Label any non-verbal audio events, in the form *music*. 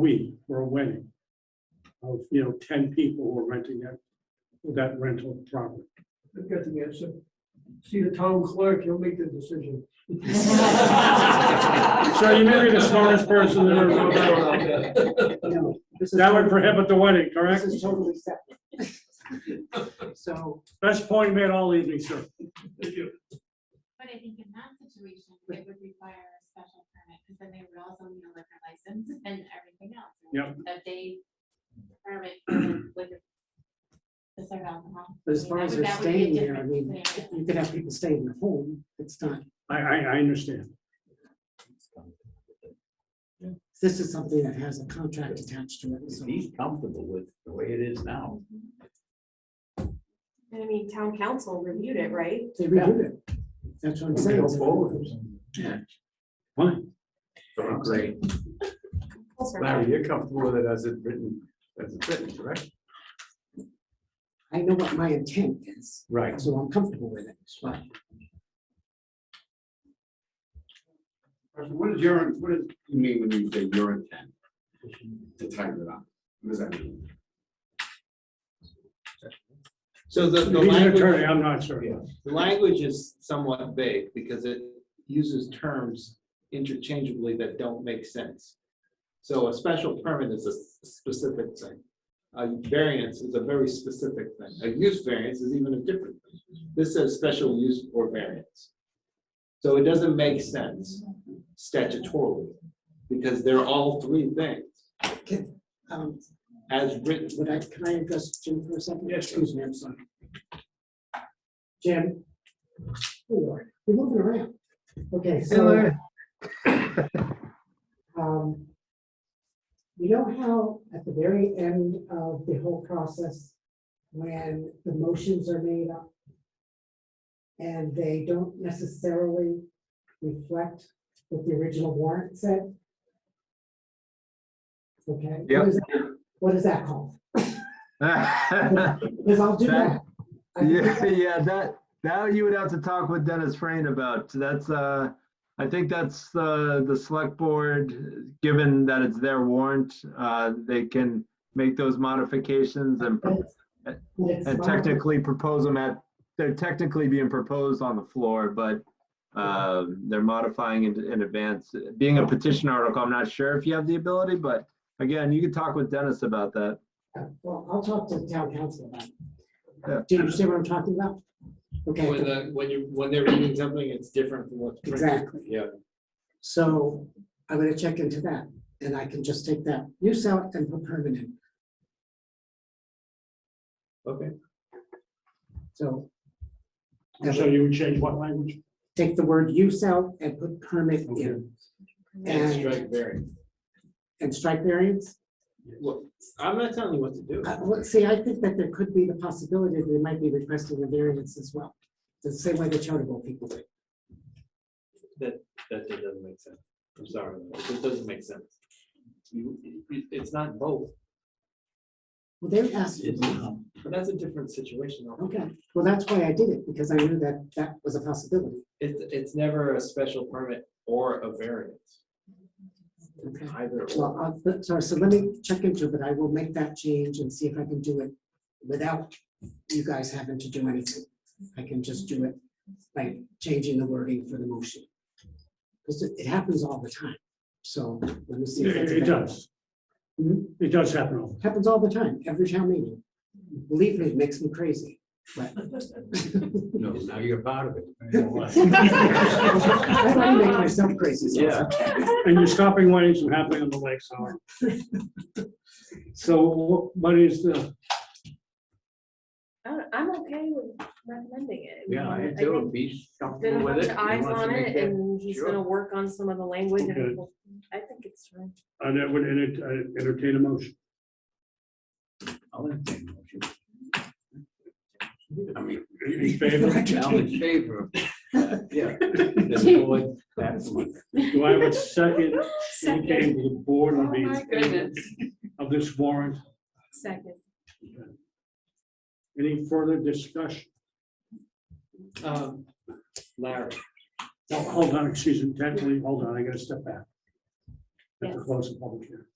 week for a wedding of, you know, ten people who are renting that, that rental property. I've got the answer. See the town clerk, he'll make the decision. *laughs* So you may be the smartest person in the room. That would prohibit the wedding, correct? This is totally separate. *laughs* So, Best point made all evening, sir. But I think in that situation, it would require a special permit, because then they would also need a liquor license *laughs* and everything else. Yep. That they permit *clears throat* for liquor. To serve alcohol. as far as they're staying there, I mean, you could have people staying at home, it's not, I, I, I understand. this is something that has a contract attached to it, If so. he's comfortable with the way it is now, I mean, town council reviewed it, right? They reviewed it. That's what I'm saying. it's- Fine. great. Larry, *laughs* you're comfortable with it as it's written, as it's written, correct? I know what my intent is, Right. so I'm comfortable with it, but What is your, what does you mean when you say your intent? To tighten it up? What does that mean? So the, the He's an attorney, language, I'm not sure. the language is somewhat vague because it uses terms interchangeably that don't make sense. So a special permit is a s- specific thing. A variance is a very specific thing. A use variance is even a different thing. This says special use or variance. So it doesn't make sense statutorily because they're all three things um, as written. would I, can I address Jim for a second? Yes, sure. Excuse me, I'm sorry. Jim? Oh, Lord, You're moving around. Okay, so. Um, You know how at the very end of the whole process, when the motions are made up and they don't necessarily reflect what the original warrant said? Okay. what Yep. is that- What is that called? *laughs* yeah, Because I'll do that. I can do that. yeah, that that you would have to talk with Dennis Frain about. That's uh, I think that's uh, the select board. Given that it's their warrant, uh, they can make those modifications and pro- But it's and my- technically propose them at. They're technically being proposed on the floor, but um, they're modifying in, in advance. Being a petition article, I'm not sure if you have the ability, but again, you could talk with Dennis about that. Well, I'll talk to the town council about Yeah. it. Do you understand what I'm talking about? When Okay, the, when you, when they're reading something, it's different from what's printed. exactly. Yeah. So I'm gonna check into that and I can just take that use out and put permanent. Okay. So So you would change what language? take the word use out and put permit Okay. in And And- strike variance. and strike variance. Well, I'm not telling you what to do. Uh, well, see, I think that there could be the possibility that they might be requesting a variance as well. The same way the charitable people do. That that doesn't make sense. I'm sorry, it just doesn't make sense. You, it- it- it's not both, Well, they're asking. but that's a different situation. Okay, well, that's why I did it, because I knew that that was a possibility. It's, it's never a special permit or a variance, Okay. either. or. Well, I'll- but- sorry, so let me check into it, but I will make that change and see if I can do it without you guys having to do anything. I can just do it by changing the wording for the motion. Because it it happens all the time, so let me see. if It that's it does. Hmm? It does happen. all the time. Happens all the time, every town meeting. Believe me, it makes me crazy, but. *laughs* No, now you're part of it. *laughs* I like to make myself crazy. so- Yeah. And you're stopping weddings from happening on the lake, sorry. So what- what is the, I don't- I'm okay with recommending it. Yeah, I mean, do, think if he's Been a comfortable with bunch it. of he eyes wants to on make it that- and he's sure. gonna work on some of the language Okay. and we'll- I think it's fine. and that would enter- uh, entertain a motion? I'll entertain a motion. I mean, In favor? *laughs* I'm in favor of that, yeah. The board, that's one. Do I have a second? *laughs* We came to the board Oh, on my the, goodness. of this warrant. Second. Any further discussion? Um, Larry, Oh, Hold on, excuse me, technically, hold on, I gotta step back. That's a Yes. close of public hearing.